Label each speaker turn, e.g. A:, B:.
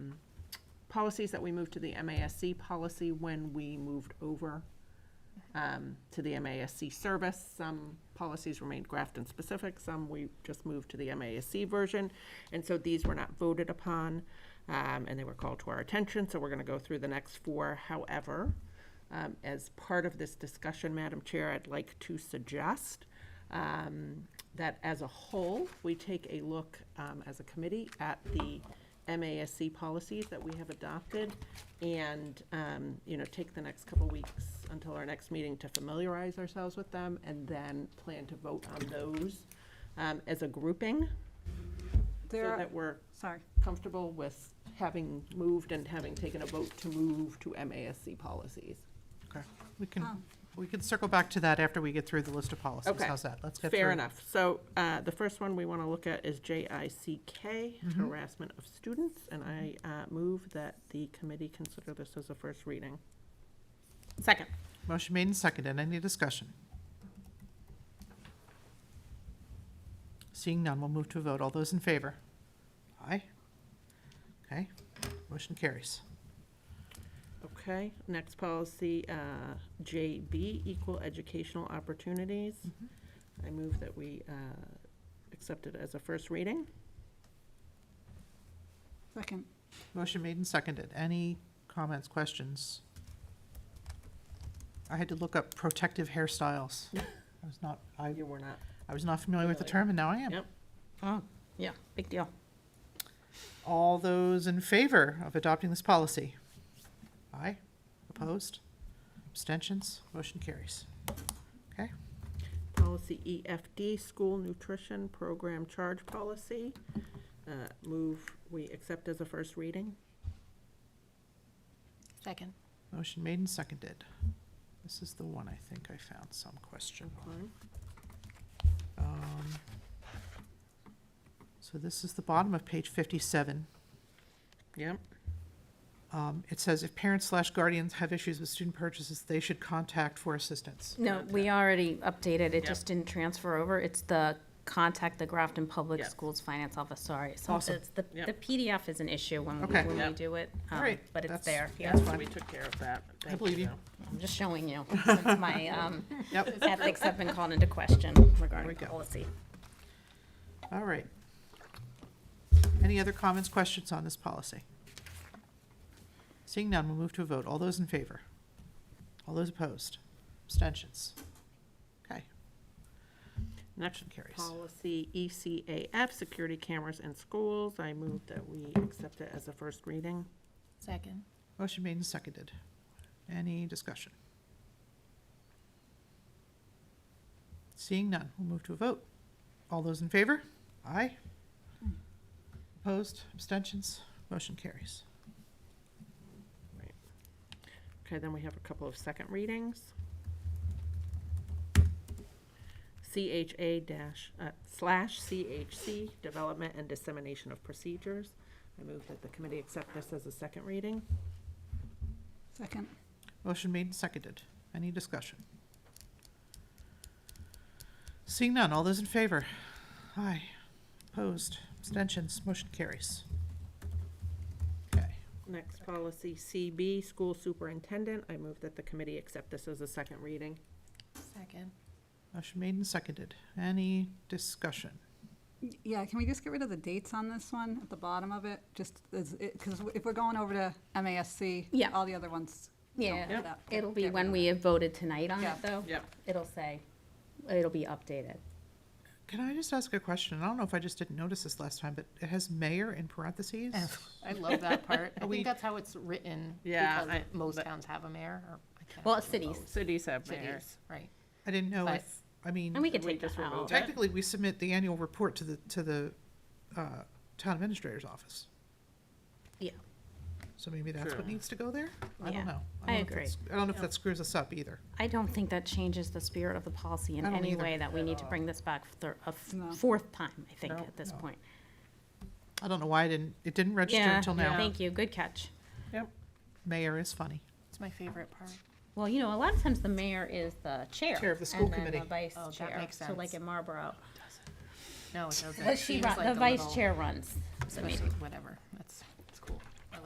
A: policies that we moved to the MASC policy when we moved over um, to the MASC service. Some policies remained Grafton specific, some we just moved to the MASC version. And so these were not voted upon, um, and they were called to our attention, so we're going to go through the next four. However, um, as part of this discussion, Madam Chair, I'd like to suggest um, that as a whole, we take a look um, as a committee at the MASC policies that we have adopted and, um, you know, take the next couple weeks until our next meeting to familiarize ourselves with them and then plan to vote on those um, as a grouping so
B: There are,
A: that we're
B: sorry,
A: comfortable with having moved and having taken a vote to move to MASC policies.
C: Okay, we can,
B: Oh.
C: we can circle back to that after we get through the list of policies.
A: Um. Okay.
C: How's that? Let's get through.
A: Fair enough. So uh, the first one we want to look at is JICK, harassment of students, and I uh, move that the committee consider this as a first reading. Second.
C: Motion made and seconded. Any discussion? Seeing none, we'll move to a vote. All those in favor? Aye. Okay, motion carries.
A: Okay, next policy, uh, JB, equal educational opportunities. I move that we uh, accept it as a first reading.
B: second.
C: Motion made and seconded. Any comments, questions? I had to look up protective hairstyles. I was not, I,
A: You were not.
C: I was not familiar with the
A: Really?
C: term, and now I am.
A: Yep.
C: Oh,
A: Yeah, big deal.
C: All those in favor of adopting this policy? Aye. Opposed? Abstentions? Motion carries. Okay,
A: Policy EFD, school nutrition program charge policy. Uh, Move, we accept as a first reading.
D: Second.
C: motion made and seconded. This is the one I think I found some question on.
A: Fine.
C: Um, So this is the bottom of page fifty-seven.
A: Yep.
C: Um, It says if parents slash guardians have issues with student purchases, they should contact for assistance.
D: No, we already updated,
A: Yep.
D: it just didn't transfer over. It's the contact the Grafton Public
A: Yes.
D: Schools Finance Office, sorry. So
C: Awesome.
D: it's the,
A: Yep.
D: the PDF is an issue when we,
C: Okay.
D: when we
A: Yep.
D: do it.
C: All
D: um,
C: right,
D: But it's
C: that's-
D: there, yeah.
A: Yeah, so we took care of that. Thank
C: believe you.
A: though.
D: I'm just showing you, since my, um,
C: Yep,
D: ethics have been called into question
C: we
D: regarding
C: go.
D: policy.
C: all right. Any other comments, questions on this policy? Seeing none, we'll move to a vote. All those in favor? All those opposed? Abstentions? Okay,
A: Next
C: carries.
A: policy E ECAF, security cameras in schools. I move that we accept it as a first reading.
D: Second.
C: motion made and seconded. Any discussion? Seeing none, we'll move to a vote. All those in favor? Aye. Opposed? Abstentions? Motion carries.
A: Okay, then we have a couple of second readings. CHA dash, uh, slash CHC, development and dissemination of procedures. I move that the committee accept this as a second reading.
B: Second,
C: Motion made and seconded. Any discussion? Seeing none, all those in favor? Aye. Opposed? Abstentions? Motion carries. Okay,
A: Next policy CB, school superintendent. I move that the committee accept this as a second reading.
D: Second.
C: motion made and seconded. Any discussion?
B: Y- yeah, can we just get rid of the dates on this one at the bottom of it? Just, because if we're going over to MASC,
D: Yeah.
B: all the other ones. don't
D: Yeah.
B: fit up. Get-
D: It'll be
B: get rid
D: when
B: of
D: we
B: it.
D: have voted tonight on it,
B: Yeah.
D: though.
A: Yep.
D: It'll say, it'll be updated.
C: Can I just ask a question? I don't know if I just didn't notice this last time, but it has mayor in parentheses.
E: I love that part. I
C: We-
E: think that's how it's written.
A: Yeah,
E: because
A: I-
E: Most
A: but-
E: towns have a mayor or. I can't
D: Well,
E: remember
D: cities.
E: most
A: Cities have mayors.
E: Cities, right.
C: I didn't know
E: But-
C: if, I mean.
D: And we could
A: We
D: take
A: just
D: that
A: remove
D: out.
A: it.
C: Technically, we submit the annual report to the, to the, uh, town administrator's office.
D: Yeah.
C: So maybe that's what
A: True.
C: needs to go there? I
D: Yeah,
C: don't know.
D: I
C: don't know if
D: agree.
C: that's- I don't know if that screws us up either.
D: I don't think that changes the spirit of the policy in
C: I don't
D: any
C: either.
D: way that we need to bring this back for a f-
B: No.
D: fourth time, I think,
C: No,
D: at this
C: no.
D: point.
C: I don't know why I didn't, it didn't register until
D: Yeah,
C: now.
D: Thank you, good catch.
A: Yep.
C: Mayor is funny.
E: It's my favorite part.
D: Well, you know, a lot of times the mayor is the chair.
C: Chair of the school
D: And then
C: committee.
D: the vice
E: Oh, that
D: chair,
E: makes
D: so like
E: sense.
D: in Marlboro.
E: No, it doesn't.
D: But she,
E: Seems
D: run-
E: like
D: the
E: a
D: vice
E: little-
D: chair runs the
E: especially-
D: meeting.
E: Whatever, that's,